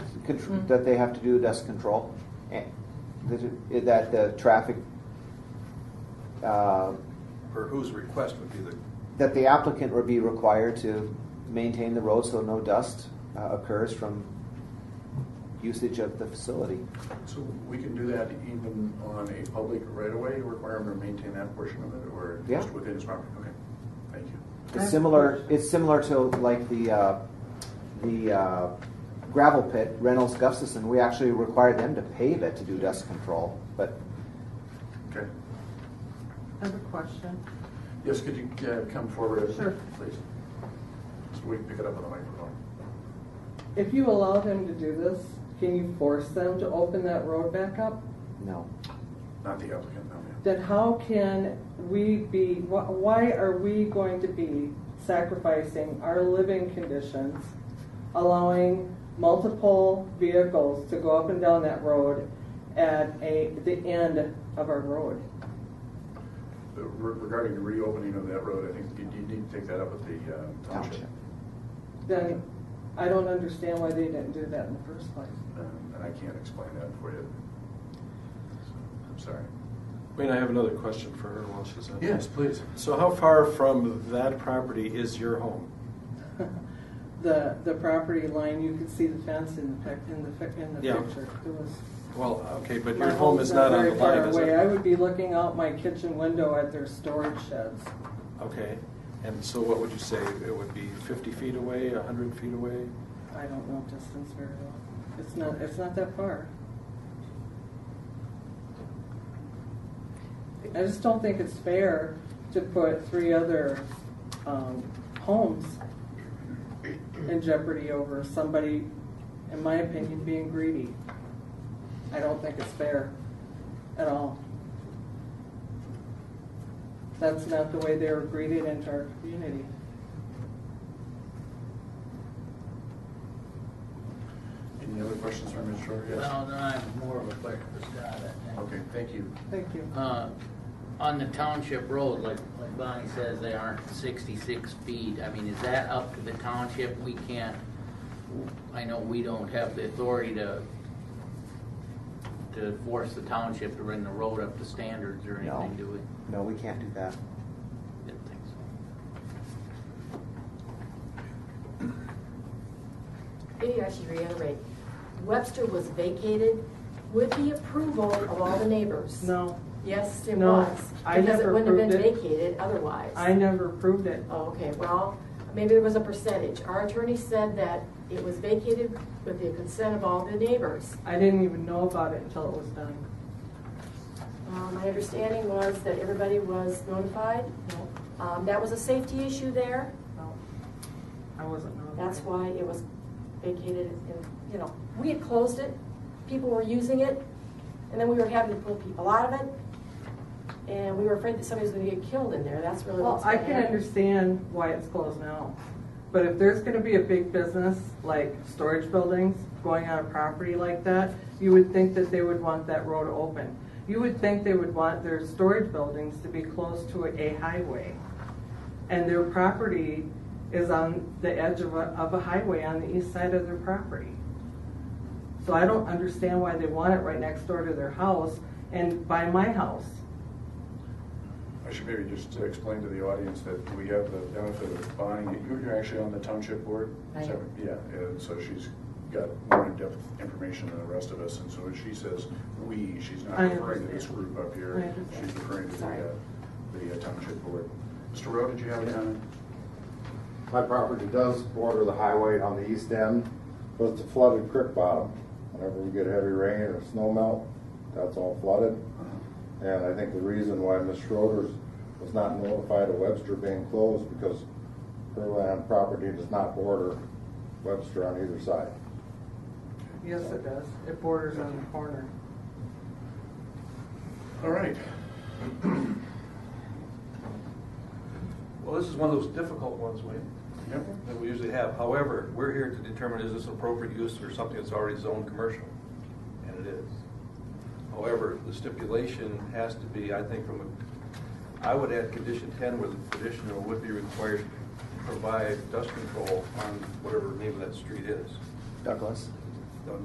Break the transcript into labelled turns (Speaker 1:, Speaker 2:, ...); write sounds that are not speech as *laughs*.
Speaker 1: contr-
Speaker 2: Mm.
Speaker 1: that they have to do dust control, and that, that the traffic, uh,
Speaker 3: or whose request would be the,
Speaker 1: that the applicant would be required to maintain the road so no dust uh, occurs from usage of the facility.
Speaker 4: So we can do that even on a public right-of-way, require them to maintain that portion of it, or
Speaker 1: Yeah.
Speaker 4: just within its property? Okay, thank you.
Speaker 1: It's similar, it's similar to like the, uh, the uh, gravel pit, Reynolds Gustafson, we actually required them to pave it to do dust control, but
Speaker 4: Okay.
Speaker 2: I have a question.
Speaker 4: Yes, could you uh, come forward?
Speaker 2: Sure.
Speaker 4: Please. So we can pick it up on the microphone.
Speaker 2: If you allow them to do this, can you force them to open that road back up?
Speaker 1: no.
Speaker 4: Not the applicant, no, ma'am.
Speaker 2: Then how can we be, wh- why are we going to be sacrificing our living conditions, allowing multiple vehicles to go up and down that road at a, the end of our road?
Speaker 4: But re- Regarding the reopening of that road, I think you you need to take that up with the uh, township.
Speaker 1: Township.
Speaker 2: Then I don't understand why they didn't do that in the first place.
Speaker 4: Um, And I can't explain that for you. So, I'm sorry.
Speaker 5: Wayne, I have another question for her while she's on.
Speaker 4: Yes, please.
Speaker 5: So how far from that property is your home?
Speaker 2: *laughs* The, the property line, you could see the fence in the pic, in the, fi- in the
Speaker 5: Yeah.
Speaker 2: picture. It was.
Speaker 5: Well, okay, but
Speaker 2: my
Speaker 5: your home
Speaker 2: home's
Speaker 5: is not on the
Speaker 2: very far
Speaker 5: line, is
Speaker 2: away. I
Speaker 5: it?
Speaker 2: would be looking out my kitchen window at their storage sheds.
Speaker 5: Okay, and so what would you say? It would be fifty feet away, hundred feet away?
Speaker 2: I don't know distance very well. It's not, it's not that far. I just don't think it's fair to put three other, um, homes in jeopardy over somebody, in my opinion, being greedy. I don't think it's fair at all. That's not the way they were greeted into our community.
Speaker 4: Any other questions from Ms. Shore? Yes.
Speaker 6: Well, then I have more of a question for Scott, I think.
Speaker 4: Okay, thank you.
Speaker 2: Thank you.
Speaker 6: Uh, On the township road, like, like Bonnie says, they aren't sixty-six feet. I mean, is that up to the township? We can't, I know we don't have the authority to, to force the township to bring the road up to standards or
Speaker 1: No.
Speaker 6: anything, do we?
Speaker 1: No, we can't do that.
Speaker 6: Didn't think so.
Speaker 7: Maybe I should reiterate, Webster was vacated with the approval of all the neighbors.
Speaker 2: No,
Speaker 7: Yes, it
Speaker 2: No,
Speaker 7: was.
Speaker 2: I
Speaker 7: Because
Speaker 2: never
Speaker 7: it wouldn't have been
Speaker 2: approved it.
Speaker 7: vacated otherwise.
Speaker 2: I never approved it.
Speaker 7: Oh, okay, well, maybe there was a percentage. Our attorney said that it was vacated with the consent of all the neighbors.
Speaker 2: I didn't even know about it until it was done.
Speaker 7: Um, My understanding was that everybody was notified. Um, That was a safety issue there.
Speaker 2: No, I wasn't notified.
Speaker 7: That's why it was vacated, and, you know, we had closed it, people were using it, and then we were having to pull people out of it, and we were afraid that somebody was gonna get killed in there, that's really
Speaker 2: Well,
Speaker 7: what's.
Speaker 2: I
Speaker 7: gonna
Speaker 2: can
Speaker 7: happen.
Speaker 2: understand why it's closed now, but if there's gonna be a big business, like storage buildings, going on a property like that, you would think that they would want that road open. You would think they would want their storage buildings to be close to a highway. And their property is on the edge of a, of a highway on the east side of their property. So I don't understand why they want it right next door to their house and by my house.
Speaker 4: I should maybe just explain to the audience that we have the benefit of Bonnie, you- you're actually on the township board?
Speaker 7: I am.
Speaker 4: So, Yeah, and so she's got more in-depth information than the rest of us, and so when she says "we," she's not
Speaker 2: I
Speaker 4: referring to this
Speaker 2: understand.
Speaker 4: group up
Speaker 2: I
Speaker 4: here.
Speaker 2: understand.
Speaker 4: She's referring to the,
Speaker 7: Sorry.
Speaker 4: uh, the uh, township board. Mr. Rowe, did you have a comment?
Speaker 8: My property does border the highway on the east end, but it's a flooded creek bottom. Whenever we get heavy rain or snow melt, that's all flooded. And I think the reason why Ms. Schroeder's was not notified of Webster being closed because her land property does not border Webster on either side.
Speaker 2: Yes, it does. It borders on the corner.
Speaker 4: All right.
Speaker 3: well, this is one of those difficult ones, Wayne,
Speaker 4: Yep.
Speaker 3: that we usually have. However, we're here to determine is this an appropriate use or something that's already zoned commercial, and it is. However, the stipulation has to be, I think, from a, I would add condition ten where the petitioner would be required to provide dust control on whatever the name of that street is.
Speaker 1: Douglas?